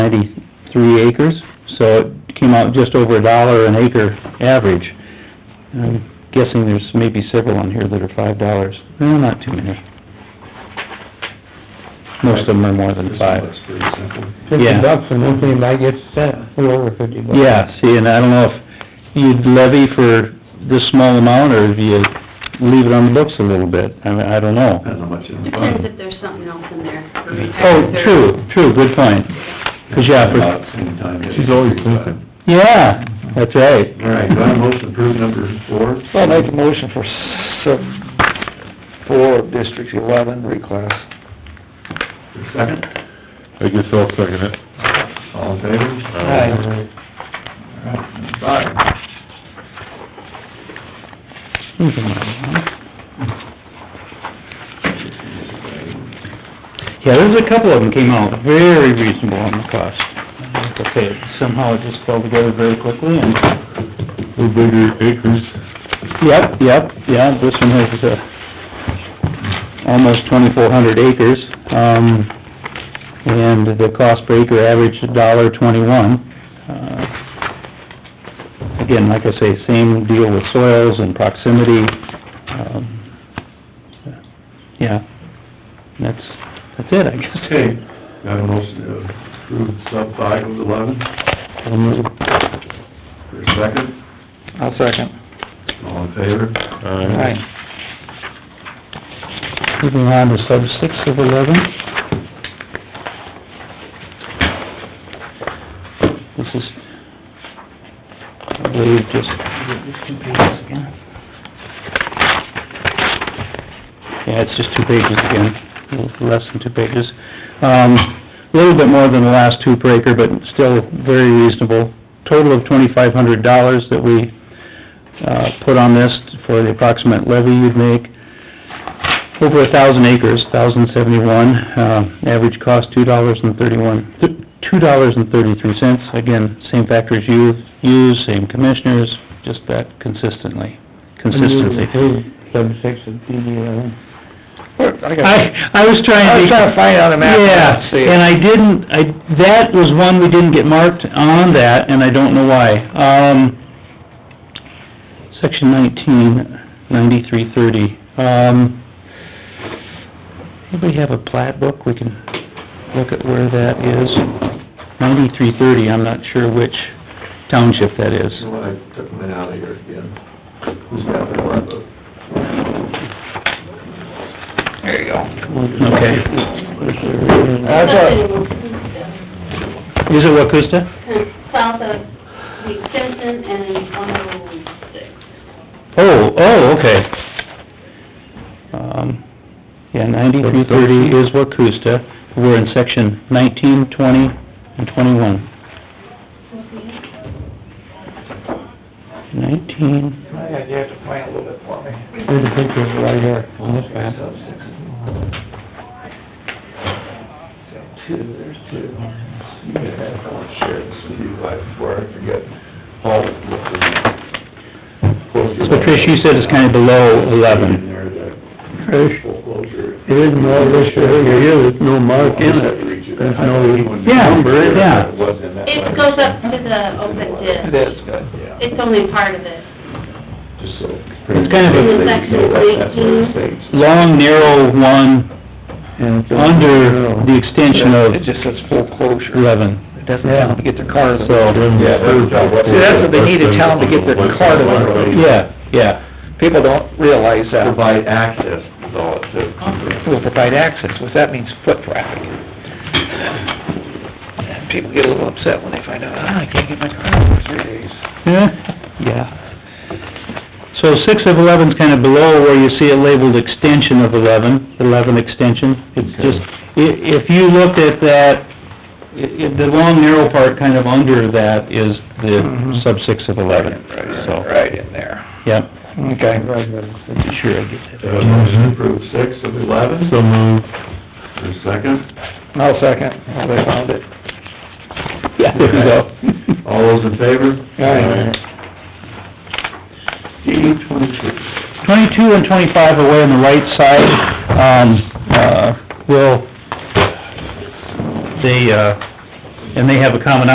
ninety-three acres, so it came out just over a dollar an acre average. And I'm guessing there's maybe several on here that are five dollars, well, not too many. Most of them are more than five. That's pretty simple. Fifty Yeah. bucks and one thing might get sent, a little over fifty bucks. Yeah, see, and I don't know if you'd levy for this small amount, or if you leave it on the books a little bit, I mean, I don't know. Depends how much it's Depends if there's something else in there. for Oh, retirement. true, true, good point. 'Cause yeah, for- About the same time. She's always thinking. Yeah, that's right. All right, do I have a motion to approve number four? I'll make a motion for sub, four of District eleven, reclass. Second, I guess I'll second it. all in favor? Aye. All right, number five. Yeah, there's a couple of them came out very reasonable on the cost. Like I say, somehow it just fell together very quickly and... We're bigger acres. Yep, yep, yeah, this one has, uh, almost twenty-four hundred acres, um, and the cost per acre averaged a dollar twenty-one. Uh, Again, like I say, same deal with soils and proximity, um, yeah, that's, that's it, I guess. Okay, do I have a motion to approve sub five of eleven? I'll move. For a second, I'll second. all in favor? Aye. Moving on to sub six of eleven. This is, I believe, just... Yeah, it's just two pages again, a little less than two pages. Um, a little bit more than the last two per acre, but still very reasonable. Total of twenty-five hundred dollars that we, uh, put on this for the approximate levy you'd make over a thousand acres, thousand seventy-one, um, average cost two dollars and thirty-one, two dollars and thirty-three cents. Again, same factors you use, same commissioners, just that consistently, consistency. Sub six of DD eleven. I, I was trying to... I was trying to find out a map. Yeah, and I didn't, I, that was one we didn't get marked on that, and I don't know why. Um, section nineteen, ninety-three thirty, um, anybody have a plat book? We can look at where that is. Ninety-three thirty, I'm not sure which township that is. You know what, I took mine out of here again. Who's got the one book? There you go. Okay. That's all. Is it Wakusta? South of the extension and one oh six. Oh, oh, okay. Um, yeah, ninety-three thirty is Wakusta, we're in section nineteen, twenty, and twenty-one. Nineteen, I had you have to plan a little bit for me. Here's the picture right here on this map. Sub six. Two, there's two. You may have, I want to share this with you right before I forget. Paul, what's the- so Trish, you said it's kinda below In eleven. there, the foreclosure. It is no, this area here, there's no mark in it. There's no... Yeah, yeah. It was in that. It goes up to the open ditch. Yeah. It's only part of it. Just so. It's kind of a- They know that that's where it Section stays. Long, narrow one, under the extension of It just says full closure. eleven. It doesn't tell them to get their car to So- Yeah, that's- See, that's what they need to tell them to get their car to the road. Yeah, yeah, People don't realize that. Provide access, is all it says. Will provide access, which that means foot traffic. And people get a little upset when they find out, ah, I can't get my car for three days. yeah, yeah. So six of eleven's kinda below where you see it labeled extension of eleven, eleven extension. It's Okay. just, i- if you looked at that, i- i- the long narrow part kind of under that is the Mhm. sub six of eleven, so, Right in there. yep. Okay. Sure, I get Uh, motion to approve six of eleven, So moved. for a second. I'll second, Oh, they found it. Yeah, there you go. All those in favor? Aye. D twenty-two. Twenty-two and twenty-five away on the right side, um, uh, will, they, uh, and they have a common